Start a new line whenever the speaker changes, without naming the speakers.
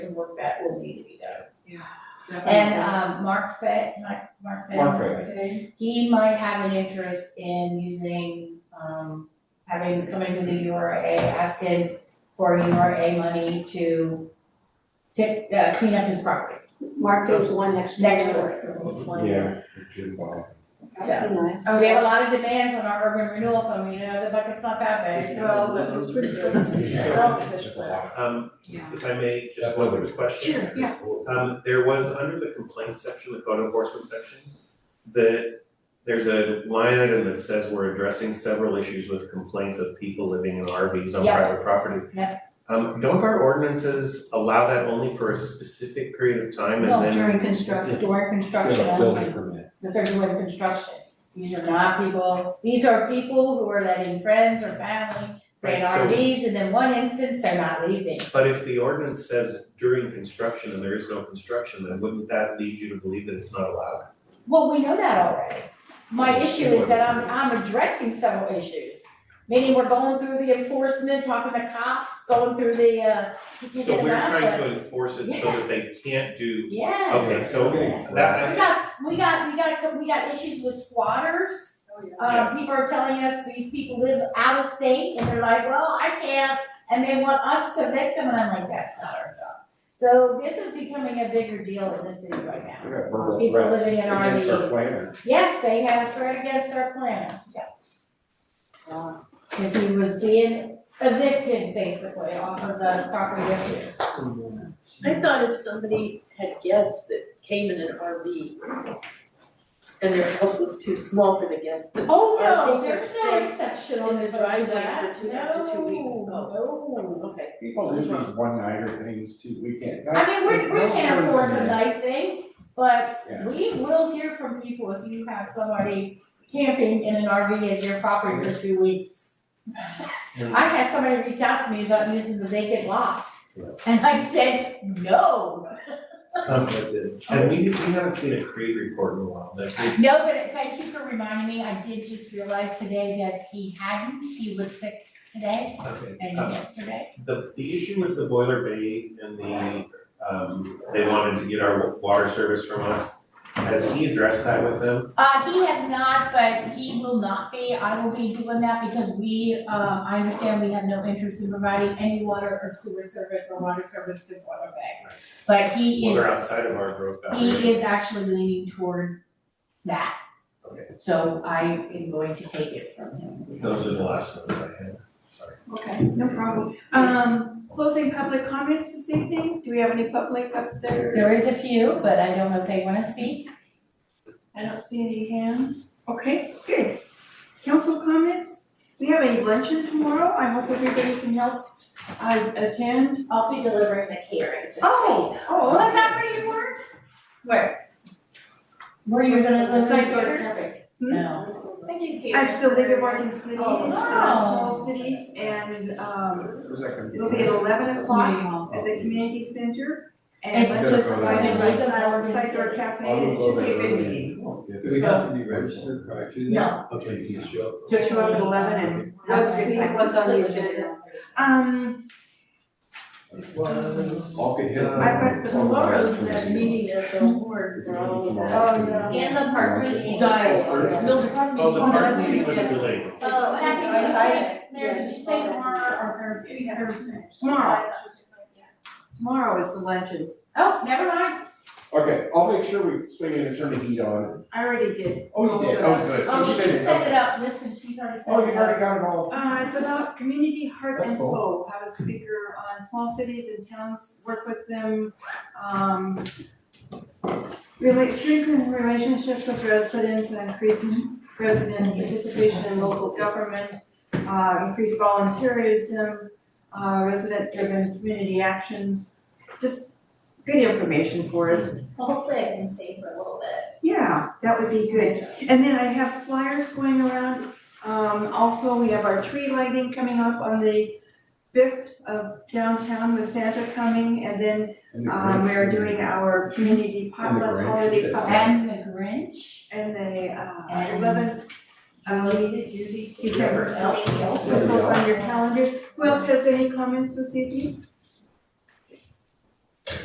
some work that will need to be done. And,
Definitely.
um, Mark Fett, Mark, Mark Fett.
Mark Fett.
Okay.
He might have an interest in using, um, having come into the URA, asking for URA money to tip, uh, clean up his property.
Mark goes the one next.
Next
door.
door.
This one.
Yeah, Jim Bob.
That'd be nice.
Oh, we have a lot of demand from our urban renewal fund, you know, the bucket's not that big.
Well, that was pretty good.
Selfish, but-
Um,
Yeah.
if I may,
That's
just one
what
quick question.
Sure, yeah.
Um, there was under the complaints section, the code enforcement section, that there's a line item that says we're addressing several issues with complaints of people living in RVs on
Yeah.
private property.
Yeah.
Um, don't our ordinances allow that only for a specific period of time and
No,
then?
during construction, during construction,
Building permit.
the third one, construction. These are not people, these are people who are letting friends or family stay in
Right, so-
RVs, and in one instance, they're not leaving.
But if the ordinance says during construction and there is no construction, then wouldn't that lead you to believe that it's not allowed?
Well, we know that already. My issue is that I'm, I'm addressing several issues. Meaning we're going through the enforcement, talking to cops, going through the, uh, you
So
get
we're
them out, but-
trying to enforce it so that they can't do,
Yes.
okay, so
Yes.
that,
We got, we got, we got, we got issues with squatters. Uh,
Oh,
Yeah.
people are telling us these people live out of state and they're like, well, I can't, and they want us to victim, and I'm like, that's not our job. So this is becoming a bigger deal in the city right now.
We got verbal
People
threats
living in
against our
RVs.
planner.
Yes, they have threat against our planner, yeah. Cause he was being evicted basically off of the property up here.
I thought if somebody had guessed that came in an RV and their house was too small for the guest, that
Oh,
I
no,
think
there's
they're
no
safe
exception
in
on
the
the
driveway
driveway that,
for
no,
two- up to two weeks.
no.
okay.
People do these one-nighter things too, we can't.
I mean, we, we can't
force
afford a night thing, but
Yeah.
we will hear from people if you have somebody camping in an RV at your property for two weeks. I had somebody reach out to me about using the vacant lot,
Yeah.
and I said, no.
Um, and we, we haven't seen a Creed report in a while, but we-
No, but thank you for reminding me, I did just realize today that he hadn't, he was sick today
okay.
and
Oh.
Um,
yesterday.
The, the issue with the boiler bay and the, um, they wanted to get our water service from us, has he addressed that with them?
Uh, he has not, but he will not be, I will be doing that because we, um, I understand we have no interest in providing any water or sewer service or water service to Boiler Bay. But he
Well,
is,
they're outside of our growth boundary.
he is actually leaning toward that.
Okay.
So I am going to take it from him.
Those are the last ones I had, sorry.
Okay, no problem. Um, closing public comments this evening? Do we have any public up there?
There is a few, but I don't know if they wanna speak.
I don't see any hands. Okay, good. Council comments? We have a luncheon tomorrow. I hope everybody can help uh, attend.
I'll be delivering the catering, just
Oh, oh,
Was that where you were?
Where?
Where you're gonna live
Side
in
door
Detroit?
Hmm?
No.
I did catering.
I'm still living working cities, for the
Wow.
small cities, and, um,
It was like a-
it'll be at eleven o'clock
Oh.
at the community center. And
It's
It's
lunch is
just-
provided by
it's
a
Side
Morgan
Side Door
City.
Cafe,
I
and
will
it
go
should
there
be a good
early.
meeting.
Do we have to be registered prior to that?
No.
Okay, so you show up.
Just show up at eleven and.
What's the, what's on the agenda?
Um,
Was.
I'll be here.
I've got the
Tomorrow's that meeting at the board,
It's
for
gonna be
all of that.
tomorrow.
Oh, no.
In the park meeting.
Diet.
First.
Oh, the park meeting was delayed.
Oh, I think
I
I,
Mary, did you say tomorrow or Thursday? Thursday.
tomorrow, tomorrow is the luncheon.
Oh, never mind.
Okay, I'll make sure we swing in and turn the heat on.
I already did.
Oh, you did, oh, good. So
Oh,
you
she
said it.
set it up, listen, she's already set
Oh, you've
it up.
already got it all.
Uh, it's about community heart and
That's cool.
soul, how to speaker on small cities and towns, work with them, um, really strengthen relationships with residents and increase resident participation in local government, uh, increase volunteerism, uh, resident-driven community actions, just good information for us.
well, hopefully I can stay for a little bit.
Yeah, that would be good. And then I have flyers going around. Um, also, we have our tree lighting coming up on the fifth of downtown with Santa coming. And then,
And the
um,
Grinch
we're
and-
doing our community potluck
Grinch
holiday
is-
potluck.
And the Grinch.
And the, uh,
And-
eleventh, um, December.
Thank you.
Put those on your calendar. Who else has any comments this evening?